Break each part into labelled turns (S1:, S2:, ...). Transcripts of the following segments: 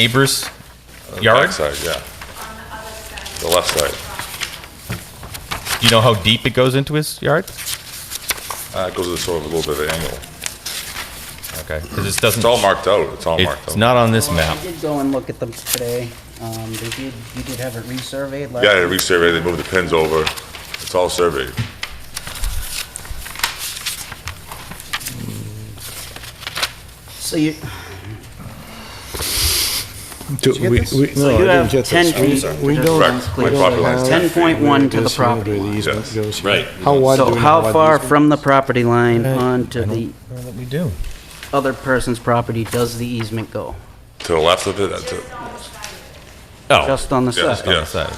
S1: neighbor's yard?
S2: Backside, yeah. The left side.
S1: Do you know how deep it goes into his yard?
S2: Uh, it goes to sort of a little bit of an angle.
S1: Okay, 'cause this doesn't.
S2: It's all marked out. Hmm. It's all marked
S1: It's
S2: out.
S1: not on this
S3: Well,
S1: map.
S3: Um, I did go and look at them today. Um, They did, you did have it resurveyed last...
S2: Yeah, they resurveyed, they moved the pins over. It's all surveyed.
S3: So you,
S4: Do
S3: you get
S4: we-
S3: this?
S4: we-
S3: So
S4: no, I
S3: you
S4: didn't
S3: have
S4: get
S3: 10
S4: this.
S3: feet
S4: We
S3: to
S4: don't-
S2: Correct.
S4: we don't
S2: Property line.
S4: have
S3: 10.1 to the
S4: this, where
S3: property line.
S4: The easement
S2: Yes.
S4: goes.
S5: Right.
S4: How wide do we
S3: so
S4: know
S3: how
S4: what
S3: far
S4: easement
S3: from the
S4: is?
S3: property line onto
S1: I don't-
S3: the
S1: Well, Let me do.
S3: other person's property does the easement go?
S2: To the left of it, uh, to-
S1: Oh,
S3: Just on the
S2: yeah,
S3: side?
S1: on the
S2: yeah.
S1: side.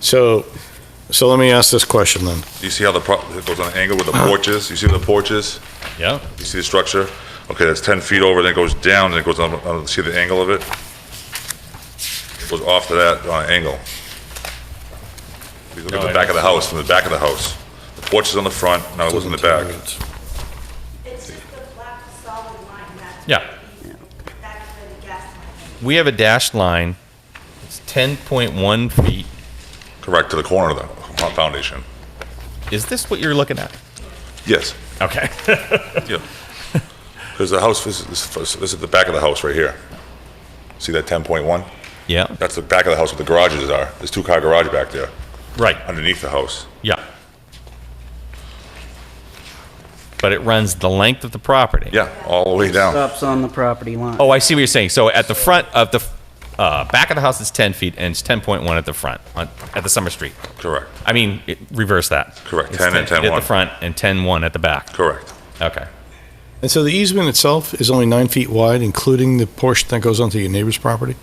S4: So, so let me ask this question then.
S2: You see how the, pro- it goes on an angle with the porches? You see the porches?
S1: Yeah.
S2: You see the structure? Okay, that's 10 feet over, then it goes down, then it goes on, on- see the angle of it? It Goes off to that on an angle. If You look
S1: No,
S2: at
S1: I
S2: the back of the
S1: don't see
S2: house, from the back of the house. The porch is on the front, now it goes in the back.
S6: It's just the black solid line, that's.
S1: Yeah.
S6: where the- That's where the gas line is.
S1: We have a dashed line. It's 10.1 feet.
S2: Correct, to the corner of the fo- foundation.
S1: Is this what you're looking at?
S2: Yes,
S1: Okay.
S2: yeah. Because the house, this is, this is the back of the house right here. See that 10.1?
S1: Yeah,
S2: That's the back of the house where the garages are. There's two-car garage back there,
S1: right,
S2: underneath the house.
S1: yeah. But it runs the length of the property.
S2: Yeah, all the way down.
S3: Stops on the property line.
S1: Oh, I see what you're saying. So at the front of the, uh, back of the house is 10 feet and it's 10.1 at the front, on, at the summer street.
S2: Correct,
S1: I mean, it- reverse that.
S2: Correct.
S1: It's
S2: 10 and
S1: At the
S2: 10-1.
S1: front and 10-1 at the back.
S2: correct.
S1: Okay.
S4: And so the easement itself is only nine feet wide, including the portion that goes onto your neighbor's property?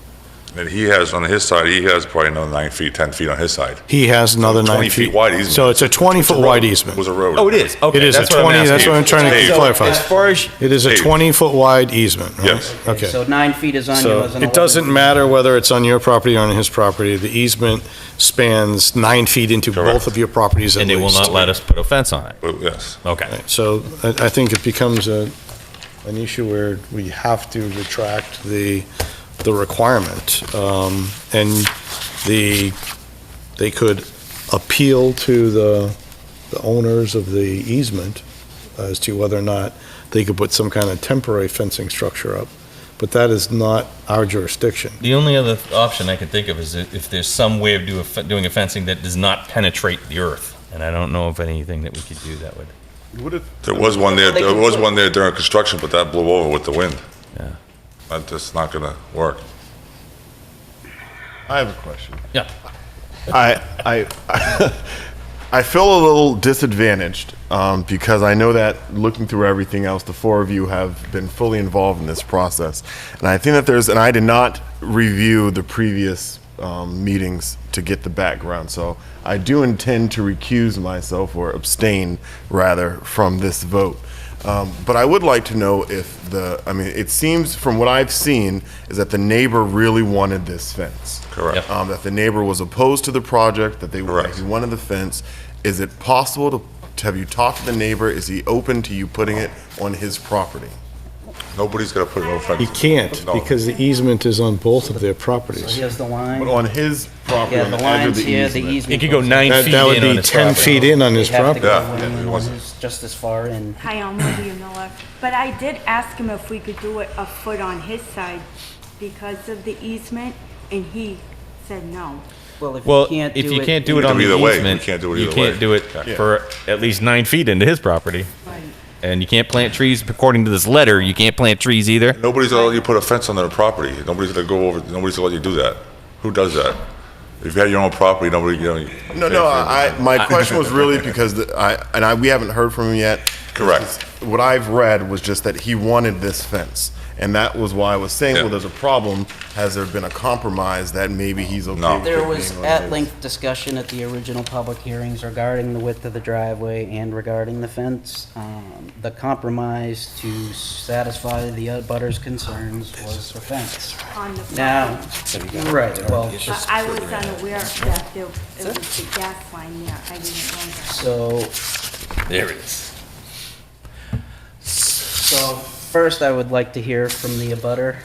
S2: And he has, on his side, he has probably another nine feet, 10 feet on his side.
S4: He has another nine
S2: 20
S4: feet.
S2: feet wide easement.
S4: So it's a 20-foot wide
S2: It
S4: easement.
S2: was a road.
S1: Oh, it is. Okay.
S4: It is a
S1: that's what I'm
S4: 20, that's
S1: asking.
S4: what I'm trying
S2: Hey.
S4: to clarify.
S1: As far as,
S4: It is a
S2: Hey.
S4: 20-foot wide easement, right?
S2: Yes.
S4: Okay.
S3: So nine feet is on
S4: So
S3: yours and 11
S4: it doesn't matter whether it's on your property or on his property, the easement spans nine feet into both
S2: Correct.
S4: of your properties at
S1: and they will
S4: least.
S1: not let us put a fence on it.
S2: Oh, Yes,
S1: Okay.
S4: So I, I think it becomes a, an issue where we have to retract the, the requirement. Um, And the, they could appeal to the, the owners of the easement as to whether or not they could put some kind of temporary fencing structure up. But that is not our jurisdiction.
S1: The only other option I could think of is if there's some way of do a, doing a fencing that does not penetrate the earth. And I don't know of anything that we could do that would.
S2: there was one there, there was one there during construction, but that blew over with the wind.
S1: Yeah.
S2: That- That's not gonna work.
S7: I have a question.
S1: Yeah.
S7: I I I feel a little disadvantaged um, because I know that looking through everything else, the four of you have been fully involved in this process, and I think that there's and I did not review the previous um, meetings to get the background, so I do intend to recuse myself or abstain rather from this vote. Um, but I would like to know if the I mean it seems from what I've seen is that the neighbor really wanted this fence.
S2: Correct.
S7: Um, that the neighbor was opposed to the project, that they
S2: Correct.
S7: he wanted the fence. Is it possible to, to have you talked to the neighbor? Is he open to you putting it on his property?
S2: Nobody's gonna put no fence.
S4: He can't,
S2: No.
S4: because the easement is on both of their properties.
S3: Here's the
S7: But
S3: line.
S7: on his property,
S3: Yeah,
S7: on
S3: the
S7: the edge of
S3: line's
S7: the
S3: here, the
S7: easement.
S3: easement.
S1: It could go
S3: goes-
S1: nine
S4: That
S1: feet
S4: that would
S1: in on
S4: be
S1: his
S4: 10
S1: property.
S4: feet in on
S3: They
S4: his
S3: have to
S4: property.
S3: go
S2: Yeah, yeah,
S3: in,
S2: it wasn't-
S3: it's just as far in.
S6: Hi, Elma, do you know of? But I did ask him if we could do it a foot on his side because of the easement, and he said no.
S3: Well, if you
S1: Well,
S3: can't do it...
S1: if you can't do it
S2: can
S1: on
S2: do
S1: the
S2: either way. We
S1: easement,
S2: can't do it
S1: you
S2: either
S1: can't
S2: way.
S1: do it
S2: Yeah.
S1: for at least nine feet into his property. And you can't plant trees, according to this letter, you can't plant trees either.
S2: Nobody's gonna let you put a fence on their property. Nobody's gonna go over, nobody's gonna let you do that. Who does that? If you had your own property, nobody, you know.
S7: No, no. I, I- my question was really because the, I and I we haven't heard from him yet.
S2: Correct.
S7: What I've read was just that he wanted this fence, and that was why I was saying,
S2: Yeah.
S7: well, there's a problem. Has there been a compromise that maybe he's okay?
S2: No.
S5: Um,
S7: with
S3: There
S7: it
S3: was
S7: being on
S5: uh,
S7: his-
S3: at-length discussion at the original public hearings regarding the width of the driveway and regarding the fence. Um, The compromise to satisfy the abutters' concerns was the fence.
S6: On the front.
S3: Now, right, well,
S6: But I was unaware that there, it was the gas line there, I didn't know that.
S3: so,
S5: There it is.
S3: so first I would like to hear from the abutter